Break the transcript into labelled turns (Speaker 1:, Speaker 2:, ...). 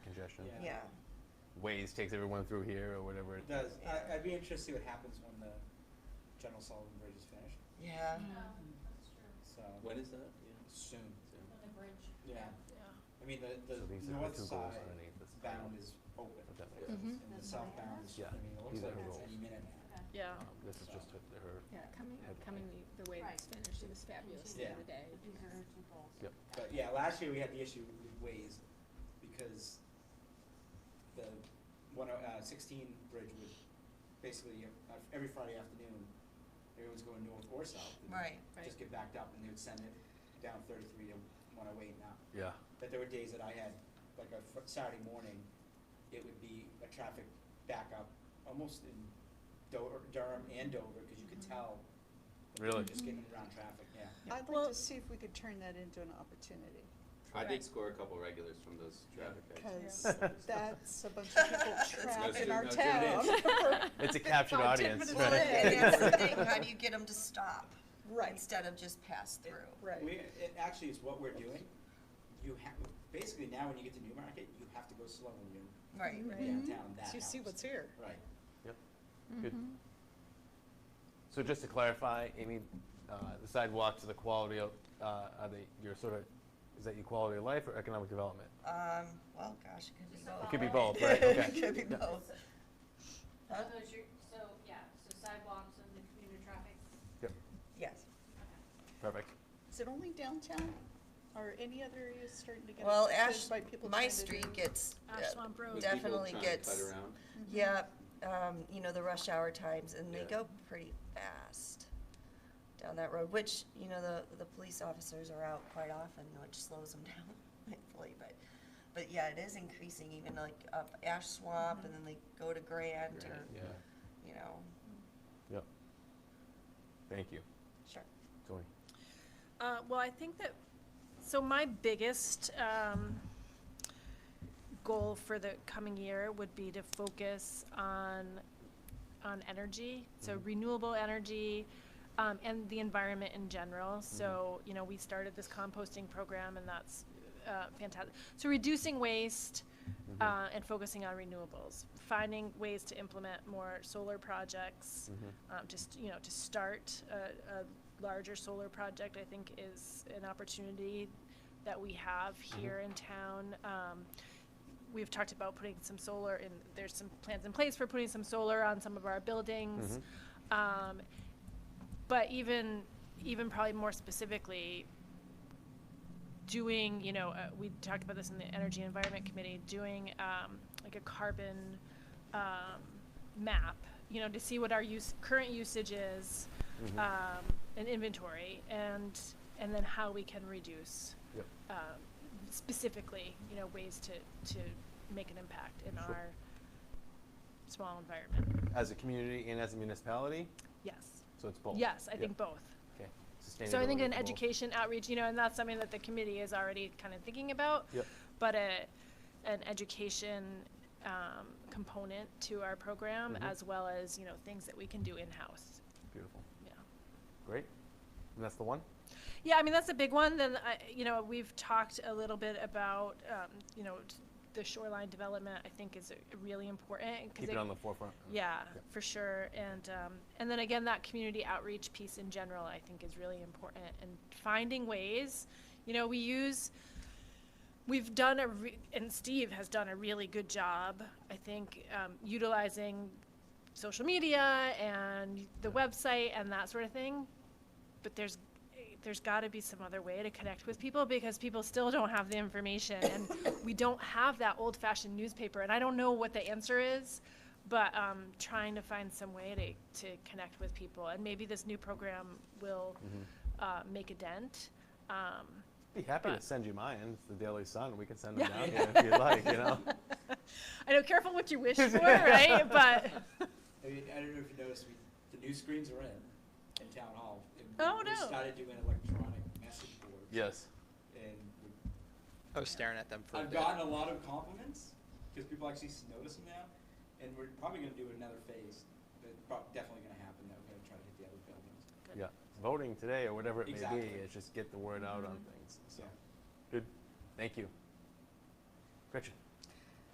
Speaker 1: suggestions.
Speaker 2: Yeah.
Speaker 3: yeah.
Speaker 1: Waze takes everyone through here or whatever.
Speaker 2: It does. I, I'd be interested to see what happens when the General Sullivan Bridge is finished,
Speaker 3: Yeah.
Speaker 4: that's true,
Speaker 2: so.
Speaker 5: When is that? Yeah.
Speaker 2: Soon.
Speaker 4: on the bridge.
Speaker 2: Yeah.
Speaker 4: Yeah.
Speaker 2: I mean, the,
Speaker 1: So these
Speaker 2: the
Speaker 1: are the
Speaker 2: north
Speaker 1: two goals
Speaker 2: side
Speaker 1: underneath this
Speaker 2: bound
Speaker 1: plan.
Speaker 2: is open.
Speaker 1: If that makes
Speaker 5: Yeah.
Speaker 1: sense.
Speaker 2: And the
Speaker 4: Mhm.
Speaker 2: southbound is,
Speaker 1: Yeah.
Speaker 2: I mean, it looks
Speaker 1: These are
Speaker 2: like
Speaker 1: her
Speaker 2: it's
Speaker 1: goals.
Speaker 2: any minute now.
Speaker 4: Okay.
Speaker 6: Yeah,
Speaker 1: Um, This is just her, her-
Speaker 6: yeah, coming,
Speaker 1: Headline.
Speaker 6: coming the, the way it's
Speaker 4: Right.
Speaker 6: finished, it was fabulous the
Speaker 2: Yeah.
Speaker 6: other day.
Speaker 4: These are her two goals.
Speaker 1: Yep.
Speaker 2: But yeah, last year we had the issue with Waze because the one oh, uh, sixteen bridge would basically, uh, every Friday afternoon, everyone's going north or south. and
Speaker 3: Right.
Speaker 2: Just
Speaker 6: Right.
Speaker 2: get backed up and they would send it down thirty-three to one oh eight and up.
Speaker 1: yeah.
Speaker 2: That there were days that I had, like a fr- Saturday morning, it would be a traffic backup almost in Dover, Durham and Dover, cause you could
Speaker 7: Mm-hmm.
Speaker 2: tell. that people
Speaker 1: Really?
Speaker 2: Just getting around traffic, yeah.
Speaker 7: I'd like
Speaker 6: Well-
Speaker 7: to see if we could turn that into an opportunity,
Speaker 5: I did
Speaker 6: Correct.
Speaker 5: score a couple regulars from those traffic accidents.
Speaker 7: because that's a bunch of people trapped in our
Speaker 5: Let's do-
Speaker 7: town.
Speaker 5: let's do
Speaker 1: It's a captured
Speaker 6: Oh, ten
Speaker 1: audience,
Speaker 6: minutes
Speaker 3: Well,
Speaker 1: right?
Speaker 3: and that's the thing, how do you get them to stop
Speaker 7: Right,
Speaker 3: instead of just pass through?
Speaker 7: right.
Speaker 2: We, it actually is what we're doing. You have, basically now when you get to Newmarket, you have to go slow when you're
Speaker 7: Mm-hmm.
Speaker 3: Right.
Speaker 6: Right.
Speaker 2: downtown, that
Speaker 7: So you see
Speaker 2: helps.
Speaker 7: what's here.
Speaker 2: Right.
Speaker 1: Good. So just to clarify, Amy, uh, the sidewalks, are the quality of, uh, are they, your sort of, is that your quality of life or economic development?
Speaker 3: Um, well, gosh, it could be
Speaker 4: Just
Speaker 3: both.
Speaker 4: a
Speaker 1: It could be
Speaker 4: Quality.
Speaker 1: both, right? Okay.
Speaker 3: It could be both. Huh?
Speaker 4: So those are- so, yeah, so sidewalks and the commuter traffic,
Speaker 3: Yes.
Speaker 4: okay.
Speaker 1: Perfect.
Speaker 7: Is it only downtown, or any other areas starting to get
Speaker 3: Well,
Speaker 7: affected
Speaker 3: Ash,
Speaker 7: by people
Speaker 3: my
Speaker 7: trying to
Speaker 3: street
Speaker 7: do-
Speaker 3: gets, uh,
Speaker 6: Ashland Road.
Speaker 5: With people
Speaker 3: Definitely
Speaker 5: trying to
Speaker 3: gets-
Speaker 5: Cut around.
Speaker 3: yeah, um, you know, the rush hour times, and they
Speaker 5: Yeah.
Speaker 3: go pretty fast down that road, which, you know, the, the police officers are out quite often, which slows them down, thankfully, but, but yeah, it is increasing, even like up Ash Swamp, and then they go to Grant, or,
Speaker 1: Yeah,
Speaker 3: you know,
Speaker 1: thank you.
Speaker 3: sure.
Speaker 1: Tony?
Speaker 6: Uh, well, I think that, so my biggest, um, goal for the coming year would be to focus on, on energy, so
Speaker 1: Mhm.
Speaker 6: renewable energy, um, and the environment in general. So, you know, we started this composting program and that's, uh, fantastic. So reducing waste,
Speaker 1: Mhm.
Speaker 6: uh, and focusing on renewables, finding ways to implement more solar projects,
Speaker 1: Mhm.
Speaker 6: um, just, you know, to start a, a larger solar project, I think is an opportunity that we have here in town. Um, we've talked about putting some solar in, there's some plans in place for putting some solar on some of our buildings. Um, but even, even probably more specifically, doing, you know, uh, we talked about this in the Energy and Environment Committee, doing um, like a carbon um, map, you know, to see what our use, current usage is,
Speaker 1: Mhm.
Speaker 6: um, an inventory, and and then how we can reduce
Speaker 1: Yep.
Speaker 6: um, specifically, you know, ways to to make an impact in
Speaker 1: Sure.
Speaker 6: our small environment.
Speaker 1: As a community and as a municipality,
Speaker 6: Yes.
Speaker 1: so it's both?
Speaker 6: Yes, I
Speaker 1: Yep.
Speaker 6: think both.
Speaker 1: Okay.
Speaker 6: So I think
Speaker 1: Sustainability
Speaker 6: an
Speaker 1: is both.
Speaker 6: education outreach, you know, and that's something that the committee is already kind of thinking about.
Speaker 1: Yep.
Speaker 6: But a, an education, um, component to our program
Speaker 1: Mhm.
Speaker 6: as well as, you know, things that we can do in-house,
Speaker 1: Beautiful.
Speaker 6: yeah.
Speaker 1: Great. And that's the one?
Speaker 6: Yeah, I mean, that's a big one. Then, I, you know, we've talked a little bit about, um, you know, t- the shoreline development, I think is uh, really important. 'cause
Speaker 1: Keep it on the forefront.
Speaker 6: Yeah,
Speaker 1: Yep.
Speaker 6: for sure. And, um, and then again, that community outreach piece in general, I think is really important and finding ways, you know, we use, we've done a, re- and Steve has done a really good job, I think, um, utilizing social media and the website and that sort of thing. But there's, there's gotta be some other way to connect with people because people still don't have the information and we don't have that old fashioned newspaper. And I don't know what the answer is, but um, trying to find some way to, to connect with people. And maybe this new program will
Speaker 1: Mm-hmm.
Speaker 6: uh, make a dent. Um,
Speaker 1: Be happy to
Speaker 6: But-
Speaker 1: send you mine. It's the Daily Sun. We can send them
Speaker 6: Yeah.
Speaker 1: down here if you'd like, you know?
Speaker 6: I know, careful what you wish for, right? But
Speaker 2: I mean, I don't know if you noticed, we, the new screens are in, in town hall. and we-
Speaker 6: Oh,
Speaker 2: We
Speaker 6: no.
Speaker 2: started doing electronic message boards.
Speaker 1: Yes.
Speaker 2: And we-
Speaker 8: I was staring at them for a
Speaker 2: I've
Speaker 8: bit.
Speaker 2: gotten a lot of compliments, cause people actually s- notice them now, and we're probably gonna do another phase, but prob- definitely gonna happen, that we're gonna try to hit the other buildings,
Speaker 1: Yeah. Voting today or whatever it may
Speaker 2: Exactly.
Speaker 1: be, it's
Speaker 6: Mm-hmm.
Speaker 1: just get the word out on things. So,
Speaker 2: so.
Speaker 1: good. Thank you. Gretchen?